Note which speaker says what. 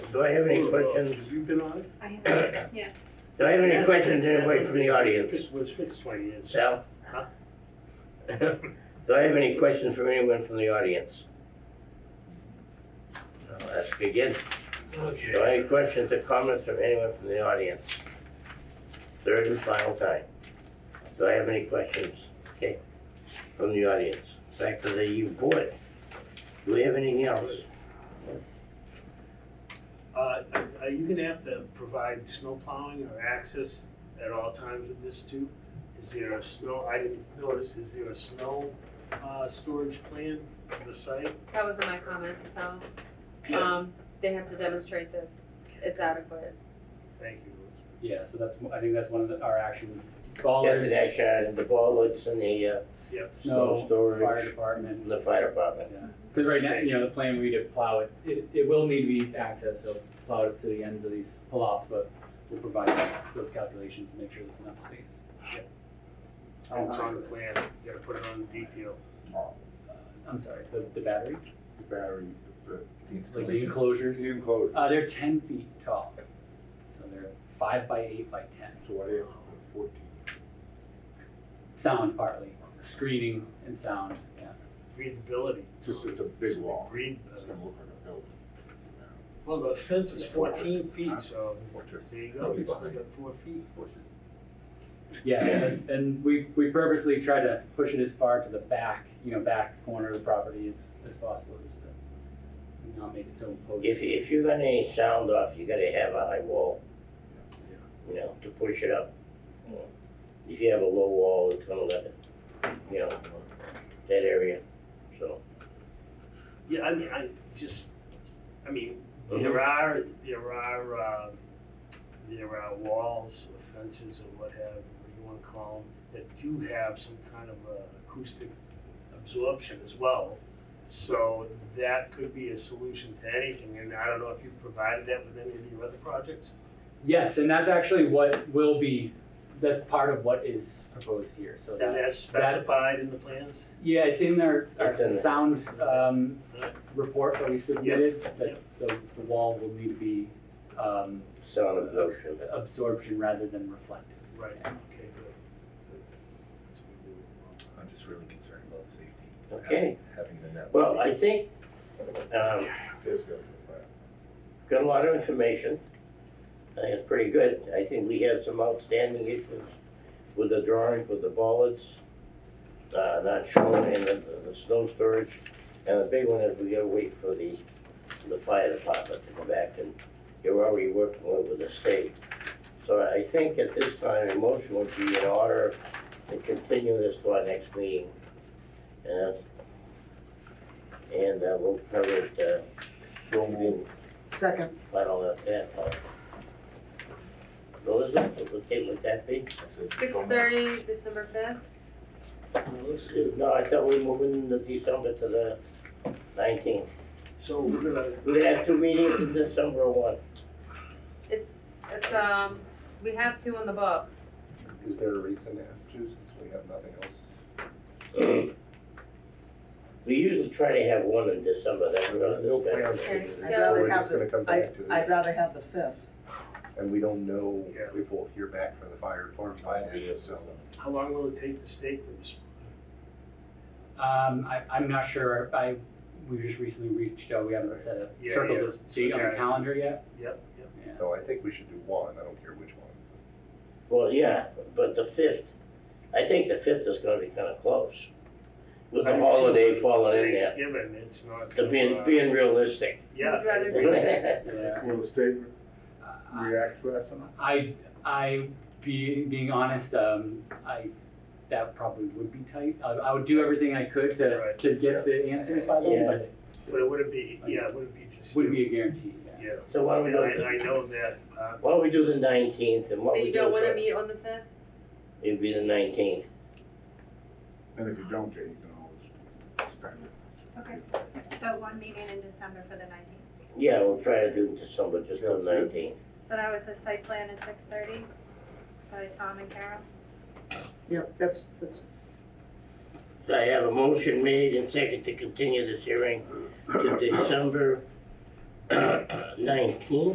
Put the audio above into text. Speaker 1: do I have any questions?
Speaker 2: Have you been on it?
Speaker 3: I have,
Speaker 1: Do
Speaker 3: yeah.
Speaker 1: I have any questions, anybody from the audience?
Speaker 2: It was fixed twenty years.
Speaker 1: Sal, do I have any questions from anyone from the audience? Now, Let's begin. Do
Speaker 4: Okay.
Speaker 1: I have any questions or comments from anyone from the audience? Third and final time. Do I have any questions, okay, from the audience? Back to the board. Do we have anything else?
Speaker 2: Uh, are you gonna have to provide snow plowing or access at all times with this too? Is there a snow, I didn't notice, is there a snow, uh, storage plan on the site?
Speaker 5: That was in my comments, so, um, they have to demonstrate that it's adequate.
Speaker 2: Thank you.
Speaker 6: Yeah, so that's, I think that's one of the- our actions.
Speaker 1: Yes, an
Speaker 6: Ballers,
Speaker 1: action item, the ballards and the uh,
Speaker 2: Yep.
Speaker 1: snow
Speaker 6: snow, fire
Speaker 1: storage,
Speaker 6: department.
Speaker 1: and the fire department.
Speaker 6: Because right now, you know, the plan we to plow it, it, it will need to be accessed, so plow it to the ends of these pull-offs, but we'll provide those calculations to make sure there's enough space.
Speaker 2: Oh, It's on the plan, you gotta put it on the detail.
Speaker 6: Uh, I'm sorry, the, the battery,
Speaker 4: The battery, the, the
Speaker 6: like the
Speaker 4: installation.
Speaker 6: enclosures,
Speaker 4: The enclosure,
Speaker 6: uh, they're ten feet tall. So they're five by eight by ten,
Speaker 4: so what do you have to put fourteen?
Speaker 6: sound partly, screening and sound, yeah.
Speaker 2: Breathability.
Speaker 4: Just, it's a big wall,
Speaker 2: Breathe,
Speaker 4: it's gonna look like a building.
Speaker 2: well, the fence is
Speaker 4: It's
Speaker 2: fourteen
Speaker 4: fortress.
Speaker 2: feet, so
Speaker 4: Fortress.
Speaker 2: there you go,
Speaker 4: Probably
Speaker 2: it's like
Speaker 4: behind.
Speaker 2: a four feet.
Speaker 4: Bushes.
Speaker 6: Yeah, and- and we, we purposely try to push it as far to the back, you know, back corner of the property as, as possible, just to not make it so
Speaker 1: If,
Speaker 6: imposing.
Speaker 1: if you're gonna any sound off, you gotta have a high wall, you know, to push it up. you know. If you have a low wall, it's gonna let it, you know, that area, so.
Speaker 2: Yeah, I mean, I just, I mean,
Speaker 6: Uh-huh.
Speaker 2: there are, there are, uh, there are walls or fences or what have, what you wanna call them, that do have some kind of uh, acoustic absorption as well. So that could be a solution to anything, and I don't know if you've provided that with any of your other projects?
Speaker 6: Yes, and that's actually what will be, that's part of what is proposed here, so
Speaker 2: And
Speaker 6: that,
Speaker 2: that's specified in the plans?
Speaker 6: yeah, it's in our, our
Speaker 1: It's in there.
Speaker 6: sound, um, report that we submitted, that
Speaker 2: Yep.
Speaker 6: the, the wall will need to be, um,
Speaker 1: Sound absorption.
Speaker 6: absorption rather than reflective.
Speaker 2: Right, okay, good. good. That's what we do.
Speaker 4: I'm just really concerned about safety,
Speaker 1: Okay,
Speaker 4: having the net.
Speaker 1: well, I think, um,
Speaker 4: There's gotta be a fire.
Speaker 1: got a lot of information. I think it's pretty good. I think we have some outstanding issues with the drawings, with the bollards, uh, not shown in the, the snow storage. And the big one is we gotta wait for the, the fire department to come back and you're already working with the state. So I think at this time, a motion would be in order to continue this to our next meeting. And, and uh, we'll cover it, uh, in
Speaker 7: Second,
Speaker 1: I don't know if that, uh, what is it, what date would that be?
Speaker 4: That's it.
Speaker 5: Six thirty, December fifth?
Speaker 1: No, I thought we were moving the December to the nineteenth.
Speaker 2: So we're gonna,
Speaker 1: We're gonna have two meetings in December or one.
Speaker 5: It's, it's, um, we have two on the books.
Speaker 4: Is there a reason to have two since we have nothing else?
Speaker 1: We usually try to have one in December, that we're
Speaker 4: No
Speaker 1: gonna
Speaker 4: plans.
Speaker 1: discuss.
Speaker 5: Okay,
Speaker 4: So
Speaker 5: so-
Speaker 4: we're just gonna come back to
Speaker 7: I'd
Speaker 4: this.
Speaker 7: rather have the fifth.
Speaker 4: And we don't know
Speaker 2: Yeah.
Speaker 4: if we'll hear back from the fire department by then, so.
Speaker 2: how long will it take the state to respond?
Speaker 6: Um, I, I'm not sure, I, we just recently reached out, we haven't set a,
Speaker 2: Yeah,
Speaker 6: circled
Speaker 2: yeah.
Speaker 6: a date on
Speaker 2: Yeah.
Speaker 6: the calendar yet.
Speaker 2: Yep, yep.
Speaker 6: Yeah.
Speaker 4: So I think we should do one, I don't care which one.
Speaker 1: Well, yeah, but the fifth, I think the fifth is gonna be kinda close. With the holiday falling in there,
Speaker 2: Thanksgiving, it's not.
Speaker 1: to
Speaker 2: gonna,
Speaker 1: being,
Speaker 2: uh,
Speaker 1: being realistic.
Speaker 2: Yeah.
Speaker 5: Would rather
Speaker 6: Yeah.
Speaker 4: Will the state
Speaker 6: Uh,
Speaker 4: react to us or not?
Speaker 6: I, I, being, being honest, um, I, that probably would be tight. I, I would do everything I could to,
Speaker 2: Right.
Speaker 6: to get the answers by then,
Speaker 1: Yeah.
Speaker 6: but it
Speaker 2: But it wouldn't be, yeah, it wouldn't be just.
Speaker 6: wouldn't be a guarantee, yeah.
Speaker 2: Yeah,
Speaker 1: So why don't we
Speaker 2: and
Speaker 1: do
Speaker 2: I,
Speaker 1: it,
Speaker 2: I
Speaker 1: the-
Speaker 2: know that, uh,
Speaker 1: why don't we do the nineteenth and what we
Speaker 5: So
Speaker 1: do?
Speaker 5: you don't wanna
Speaker 1: for-
Speaker 5: meet on the fifth?
Speaker 1: It'd be the nineteenth.
Speaker 4: And if you don't, Jay, you can always start
Speaker 3: Okay. So one meeting in December for the nineteenth.
Speaker 1: Yeah, we'll try to do it December, just on
Speaker 4: Sounds good.
Speaker 1: nineteenth.
Speaker 3: So that was the site plan at six thirty by Tom and Carol.
Speaker 7: Yep, that's, that's,
Speaker 1: So I have a motion made and second to continue this hearing to December uh, nineteen.